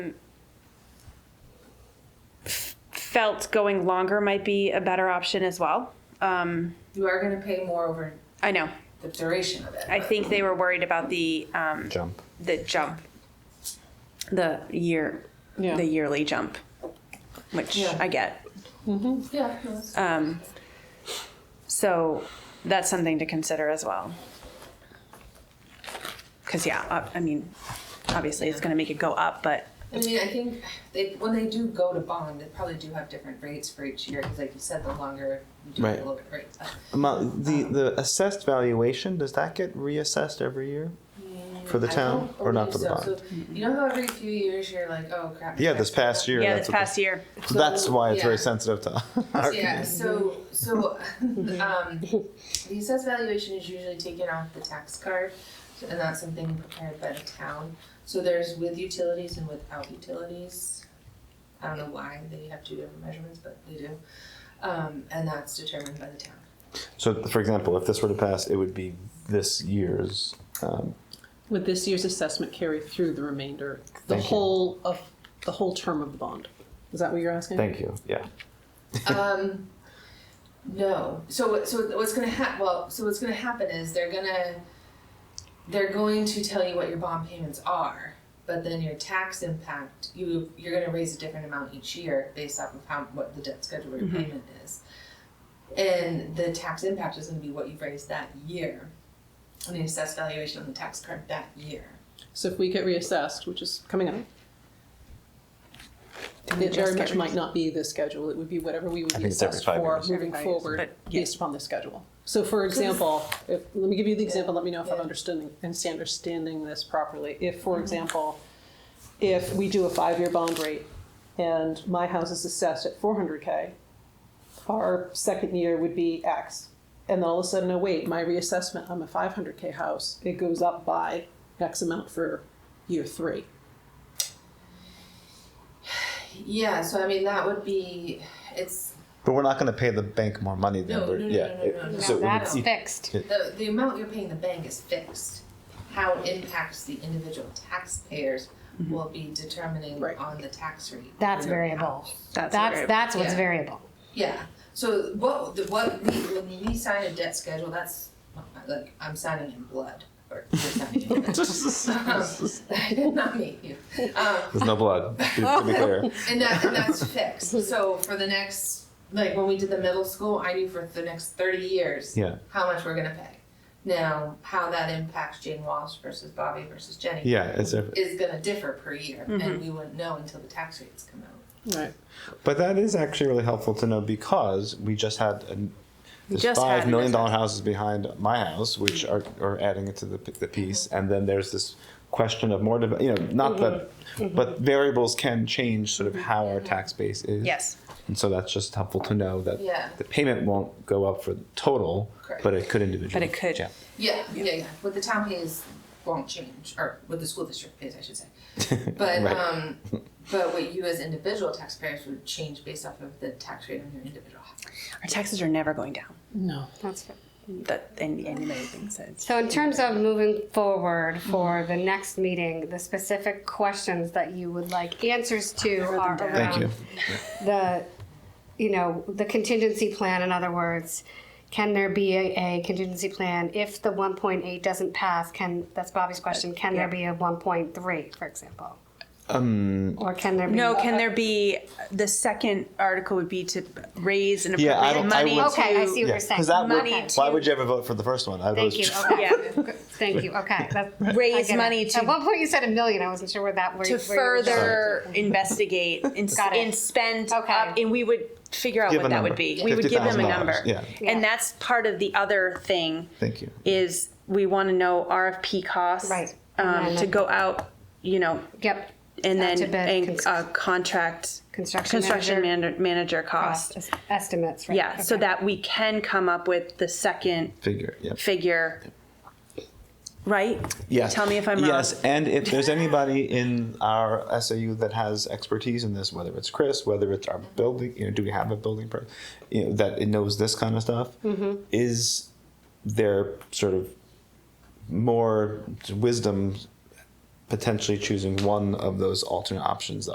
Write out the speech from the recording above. felt going longer might be a better option as well. Um, You are gonna pay more over I know. the duration of it. I think they were worried about the um, jump. the jump, the year, Yeah. the yearly jump, which Yeah. I get. Yeah. no, that's- Um, so that's something to consider as well. Because yeah, uh, I mean, obviously it's going to make it go up, but I mean, I think they, when they do go to bond, they probably do have different rates for each year, cause like you said, the longer you do it, Right. the lower the rates. are. Mo- The the assessed valuation does that get reassessed every year? For the I town don't or not believe for the so. bond? So, You know how every few years you're like, oh crap. Yeah, I this forgot past year. yeah, that's this what the- past year, so that's So, why it's yeah. very sensitive to. our Yeah, community. so, so, um, the assessed valuation is usually taken off the tax card, so- and that's something prepared by the town. So there's with utilities and without utilities. I don't know why they have two different measurements, but they do. Um, and that's determined by the town. So, for example, if this were to pass, it would be this year's. Um, Would this year's assessment carry through the remainder, the Thank you. whole of, the whole term of the bond? Is that what you're asking? thank you. Yeah. Um, no. So what- so what's gonna hap, well, so what's gonna happen is they're gonna, they're going to tell you what your bond payments are, but then your tax impact, you, you're gonna raise a different amount each year based off of how, what the debt schedule repayment is. And the tax impact is gonna be what you've raised that year, and the assessed valuation on the tax card that year. So if we get reassessed, which is coming up, we it just very get much might reassessed? not be the schedule. It would be whatever we would I be think it's every assessed five for years. moving Every five years, forward but- based upon the schedule. So for example, if, let me give you the example, let me know if I'm Yeah. understanding, understanding this properly. If, for example, if we do a five-year bond rate and my house is assessed at four hundred K, our second year would be X. And then all of a sudden, oh wait, my reassessment, I'm a five hundred K house, it goes up by X amount for year three. Yeah, so I mean, that would be, it's, But we're not going to pay the bank more money than No, we're. no, no, yeah. no, no, it- no, no. so it would- That's it- fixed. The, the amount you're paying the bank is fixed. How it impacts the individual taxpayers Mm-hmm. will be determining Right. on the tax rate. That's for your variable. house. that's That's, that's what's Yeah. variable. Yeah, so what, the- what, we- when we sign a debt schedule, that's, like, I'm signing in blood, or you're signing in blood. I did not meet you. Um, There's no blood. To be clear. and that and that's fixed. So for the next like when we did the middle school, I knew for the next thirty years Yeah. how much we're gonna pay. Now how that impacts Jane Walsh versus Bobby versus Jenny Yeah. It's a, is gonna differ per year and we wouldn't know until the tax rates come out. Right. But that is actually really helpful to know because we just had an, there's just had five an million dollar houses behind my house, which are, are adding it to the, p- the piece, and then there's this question of more, dev- you know, not that, Mm-hmm. but variables can change sort of how our tax base is. yes, And so that's just helpful to know that Yeah. the payment won't go up for the total, Correct. but it could individually. But it could. Yeah. Yeah, yeah, yeah. What the town pays won't change, or what the school district pays, I should say. But Right. um but what you as individual taxpayers would change based off of the tax rate on your individual house. our taxes are never going down. No. That's fixed. That and anybody thinks that. So in terms of moving forward for the next meeting, the specific questions that you would like answers to are down. Thank you. around the, you know, the contingency plan, in other words. Can there be a, a contingency plan if the one point eight doesn't pass? Can, that's Bobby's question, can there be a one point three, for example? Um. Or can there be? No, can there be the second article would be to raise and Yeah, appropriate I don't- I money would- Okay, I to- see Yeah, what you're saying. because that would, Money why to- would you ever vote for the first one? I Thank you, was- okay. Yeah. Thank you, okay. That- Raise I get it. money to- At one point you said a million, I wasn't sure where that, where you to where you were going. further investigate and, s- Got it. and spend Okay. up, and we would figure out Give what a that number. would be. Yeah. We would give them a number. $50,000, yeah. Yeah. And that's part of the other thing Thank you. is we want to know RFP costs Right. And um, then to the- go out, you know, Yep. and Out then to bid, and, cons- uh, contract Construction construction manager manager, manager cost. cost es- estimates, right? Yeah, so okay. that we can come up with the second Figure, yeah. figure. Right? Yes. Tell me if I'm wrong. Yes, and if there's anybody in our SAU that has expertise in this, whether it's Chris, whether it's our building, you know, do we have a building person, you know, that it knows this kind of stuff? Mm-hmm. Is there sort of more wisdom potentially choosing one of those alternate options